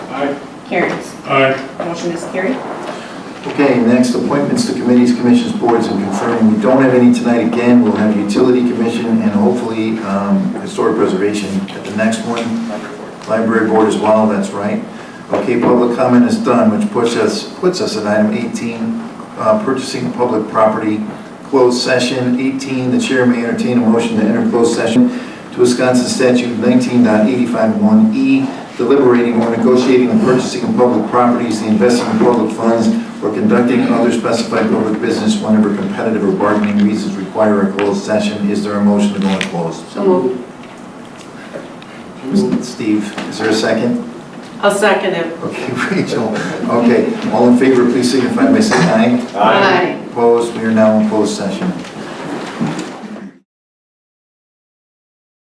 Aye. Carries. Aye. Motion is carried. Okay, next, appointments to committees, commissions, boards, and confirming. We don't have any tonight again. We'll have utility commission and hopefully um, historic preservation at the next one. Library board as well, that's right. Okay, public comment is done, which puts us, puts us at item 18, uh, purchasing public property, closed session. 18, the chair may entertain a motion to enter closed session to Wisconsin statute 19.851E, E, deliberating or negotiating the purchasing of public properties, the investing of public funds, or conducting other specified public business whenever competitive or bargaining reasons require a closed session. Is there a motion to go into closed? So moved. Steve, is there a second? I'll second it. Okay, Rachel. Okay, all in favor, please signify by saying aye. Opposed, we are now in closed session.